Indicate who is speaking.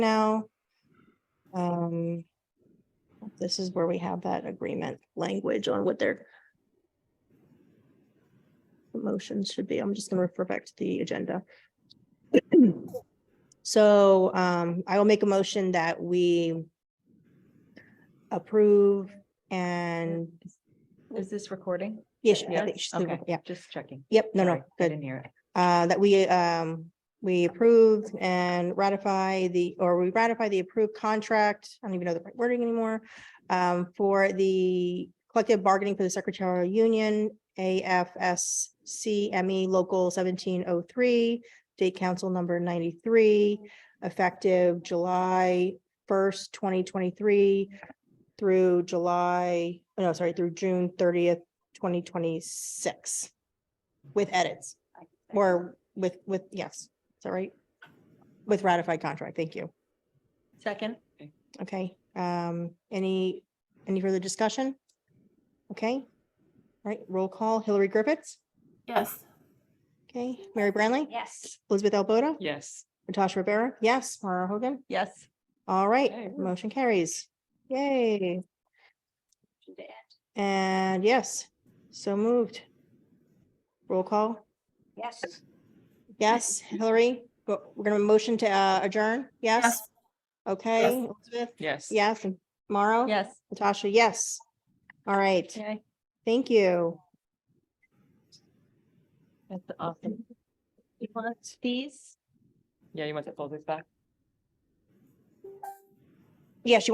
Speaker 1: now. Um, This is where we have that agreement language on what their the motion should be. I'm just gonna refer back to the agenda. So um, I will make a motion that we approve and,
Speaker 2: Is this recording?
Speaker 1: yes, I
Speaker 2: Yes?
Speaker 1: think she's doing-
Speaker 2: Okay,
Speaker 1: yeah,
Speaker 2: just checking.
Speaker 1: yep, no,
Speaker 2: Sorry,
Speaker 1: no,
Speaker 2: I
Speaker 1: good.
Speaker 2: didn't hear it.
Speaker 1: uh, that we, um, we approve and ratify the, or we ratify the approved contract, I don't even know the right wording anymore, um, for the collective bargaining for the secretarial union, AFSCME E Local seventeen oh three, State Council number ninety-three, effective July first, twenty twenty-three through July, oh, no, sorry, through June thirtieth, twenty twenty-six, with edits. Or with, with, yes, is that right? With ratified contract, thank you.
Speaker 2: Second?
Speaker 1: Okay, um, any, any further discussion? Okay, All right, roll call, Hillary Griffiths,
Speaker 3: Yes.
Speaker 1: okay, Mary Branley,
Speaker 3: Yes.
Speaker 1: Elizabeth Albota,
Speaker 4: Yes.
Speaker 1: Natasha Rivera, yes, Mara Hogan,
Speaker 2: Yes.
Speaker 1: all
Speaker 4: Okay.
Speaker 1: right, motion carries. Yay, and yes, so moved. Roll call,
Speaker 3: Yes.
Speaker 1: yes, Hillary, go- we're gonna motion to uh, adjourn, yes?
Speaker 3: Yes.
Speaker 1: Okay, Elizabeth,
Speaker 4: Yes.
Speaker 1: Yes, and Mauro?
Speaker 2: Yes.
Speaker 1: Natasha, yes. All right,
Speaker 2: Okay.
Speaker 1: thank you.
Speaker 2: That's awesome. You want these?
Speaker 4: Yeah, you want to fold this back?
Speaker 1: Yes, you